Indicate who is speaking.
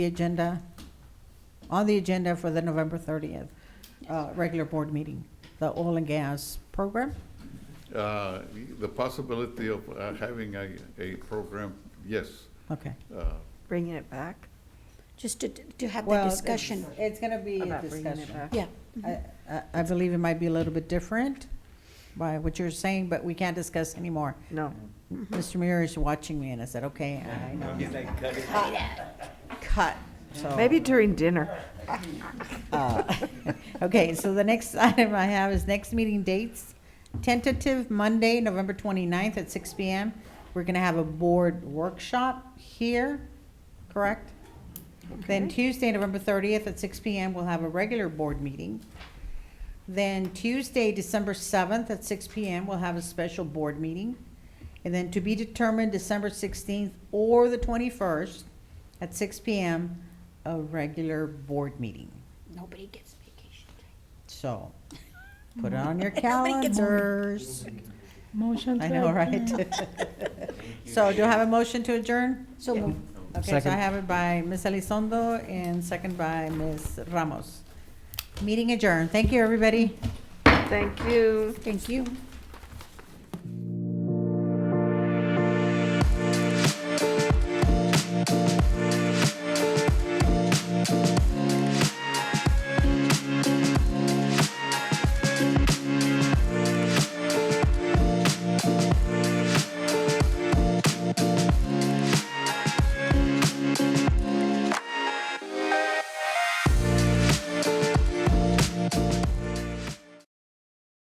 Speaker 1: the agenda, on the agenda for the November 30th, uh, regular board meeting, the oil and gas program.
Speaker 2: Uh, The possibility of uh, having a, a program, yes.
Speaker 1: Okay.
Speaker 2: Uh,
Speaker 3: Bringing it back?
Speaker 4: Just to, to have that
Speaker 1: Well,
Speaker 4: discussion.
Speaker 1: it's- It's going to be a
Speaker 3: About bringing it
Speaker 1: discussion.
Speaker 3: back.
Speaker 4: Yeah,
Speaker 1: I- I I believe it might be a little bit different by what you're saying, but we can't discuss anymore.
Speaker 3: No.
Speaker 4: Mm-hmm.
Speaker 1: Mr. Muir is watching me, and I said, okay, I know.
Speaker 5: He's like, cut it.
Speaker 1: Cut, so.
Speaker 3: Maybe during dinner.
Speaker 1: Uh, Okay, so the next item I have is next meeting dates. Tentative Monday, November 29th at six PM. We're going to have a board workshop here, correct? Then
Speaker 3: Okay.
Speaker 1: Tuesday, November 30th at six PM, we'll have a regular board meeting. Then Tuesday, December 7th at six PM, we'll have a special board meeting. And then to be determined, December 16th or the 21st at six PM, a regular board meeting.
Speaker 4: nobody gets vacation time.
Speaker 1: So, put it on your
Speaker 4: Everybody gets-
Speaker 1: calendars.
Speaker 6: Motion to
Speaker 1: I know, right? So do I have a motion to adjourn?
Speaker 4: So moved.
Speaker 1: Okay, so I have it by Ms. Elizondo and second by Ms. Ramos. Meeting adjourned. Thank you, everybody.
Speaker 3: Thank you.
Speaker 1: Thank you.